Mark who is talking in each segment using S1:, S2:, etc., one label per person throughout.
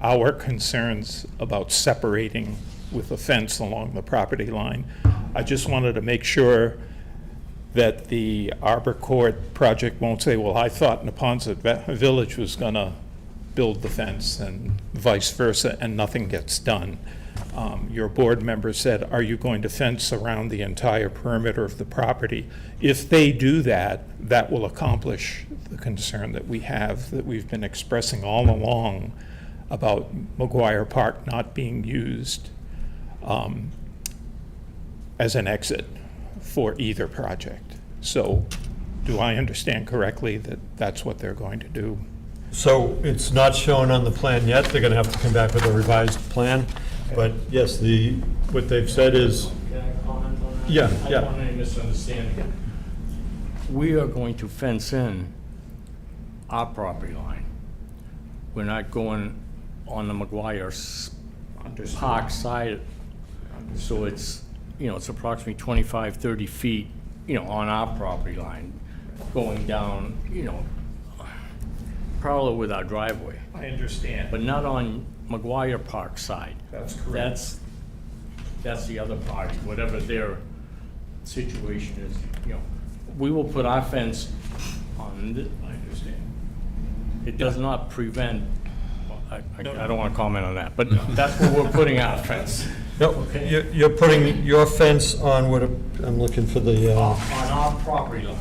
S1: our concerns about separating with a fence along the property line. I just wanted to make sure that the Arbor Court project won't say, well, I thought Napontet Va- Village was going to build the fence and vice versa, and nothing gets done. Um, Your board member said, are you going to fence around the entire perimeter of the property? If they do that, that will accomplish the concern that we have, that we've been expressing all along about McGuire Park not being used um, as an exit for either project. So do I understand correctly that that's what they're going to do?
S2: So it's not shown on the plan yet, they're gonna have to come back with a revised plan, but yes, the, what they've said is,
S3: Can I comment on that?
S2: Yeah, yeah.
S3: I don't want any misunderstanding. We are going to fence in our property line. We're not going on the McGuire s- Park side. So it's, you know, it's approximately 25, 30 feet, you know, on our property line, going down, you know, parallel with our driveway,
S1: I understand.
S3: but not on McGuire Park side.
S1: That's
S3: That's, that's the other party, whatever their situation is, you know. We will put our fence on, th-
S1: I understand.
S3: it does not prevent, I, I I don't want to comment on that, but that's where we're putting our fence.
S2: no, you're, you're putting your fence on what, a- I'm looking for the,
S3: On
S2: uh,
S3: on our property line.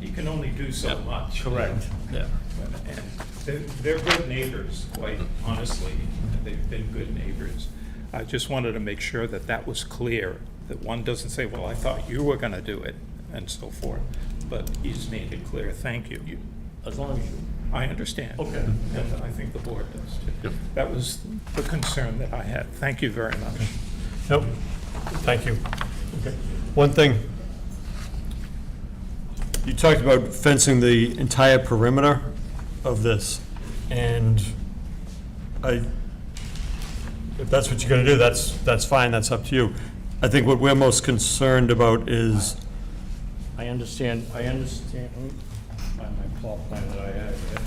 S1: You can only do so much.
S3: Yeah.
S1: And They're they're good neighbors, quite honestly, and they've been good neighbors. I just wanted to make sure that that was clear, that one doesn't say, well, I thought you were going to do it, and so forth. But he's made it clear, thank you.
S3: As long as you,
S1: I understand.
S3: Okay.
S1: And I think the board does too. That was the concern that I had. Thank you very much.
S2: nope, thank you. Okay. One thing, you talked about fencing the entire perimeter of this, and I, if that's what you're gonna do, that's, that's fine, that's up to you. I think what we're most concerned about is
S3: I understand, I understand, let me find my plot plan that I have here.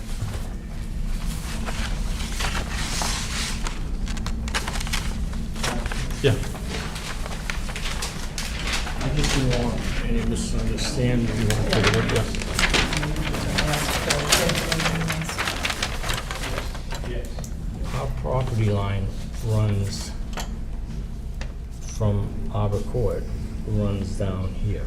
S2: Yeah,
S3: I just don't want any misunderstanding. Our property line runs from Arbor Court, runs down here.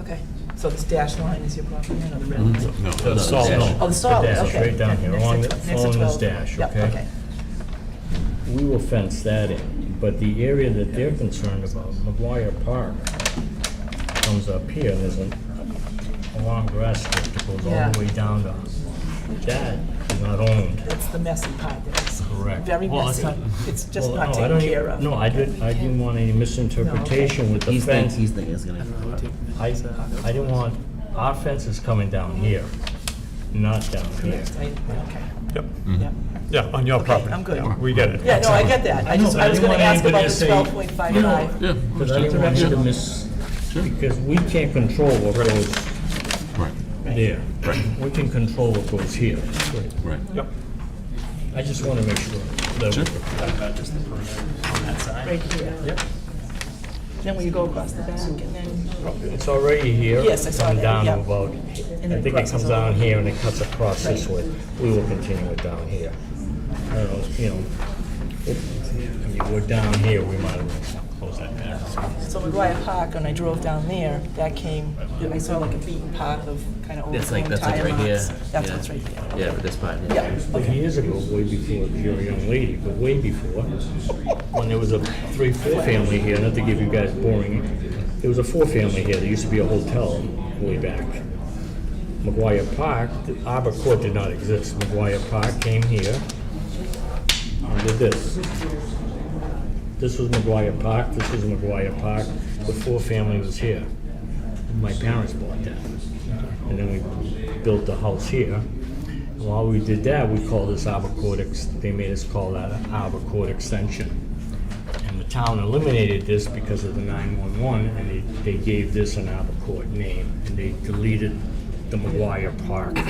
S4: Okay, so this dash line is your property line or the red line?
S3: Mm-hmm. The solid-
S4: Oh, the solid,
S3: dash
S4: okay.
S3: is right down
S4: okay,
S3: here,
S4: next to
S3: along the-
S4: tw- next to
S3: along this
S4: 12.
S3: dash,
S4: Yep,
S3: okay? We will fence that in, but the area that they're concerned about, McGuire Park, comes up here, and there's a, a long grass strip that goes all
S4: Yeah.
S3: the way down to, that is not owned.
S4: That's the messy part, that's
S3: Correct.
S4: very
S3: Well,
S4: messy.
S3: that's-
S4: It's just
S3: Well,
S4: not
S3: no, I don't
S4: taken
S3: e-
S4: care of.
S3: No, I didn't, I didn't want any misinterpretation with the
S5: He's thinking,
S3: fence.
S5: he's thinking it's gonna.
S3: I, I didn't want, our fence is coming down here, not down here.
S4: Next, I- Okay,
S2: yep,
S4: yep.
S2: yeah, on your
S4: Okay,
S2: property.
S4: I'm good.
S2: We get it.
S4: Yeah, no, I get that. I
S3: know,
S4: just,
S3: but I
S4: I was
S3: didn't
S4: gonna
S3: want
S4: ask
S3: anybody
S4: about
S3: to
S4: the
S3: say-
S4: twelve point five five.
S6: Yeah,
S3: Because I didn't want you to miss, because we can't control what goes
S6: right,
S3: there. We can control what goes here.
S6: right.
S2: Yep,
S3: I just want to make sure. that-
S6: Sure.
S4: Right here. Then will you go across the back and then,
S3: It's already here.
S4: Yes, I saw
S3: Come
S4: that,
S3: down
S4: yeah.
S3: to about,
S4: And
S3: I
S4: then
S3: think it
S4: crosses
S3: comes
S4: over.
S3: down here and it cuts across this
S4: Right.
S3: way. We will continue it down here. I don't know, you know, if, I mean, we're down here, we might as well close that down.
S4: so McGuire Park, when I drove down there, that came, I saw like a beaten path of kind of old
S5: That's like,
S4: tire
S5: that's like right here.
S4: marks. That's
S5: Yeah.
S4: what's right there.
S5: Yeah, but this part, yeah.
S4: Yeah,
S3: Like years ago, way before you were a young lady, but way before, when there was a three, four family here, not to give you guys boring, there was a four family here, there used to be a hotel way back. McGuire Park, the Arbor Court did not exist, McGuire Park came here under this. This was McGuire Park, this was McGuire Park, the four family was here. My parents bought that. And then we built the house here. And while we did that, we called this Arbor Court, ex- they made us call that an Arbor Court Extension. And the town eliminated this because of the 911, and they, they gave this an Arbor Court name, and they deleted the McGuire Park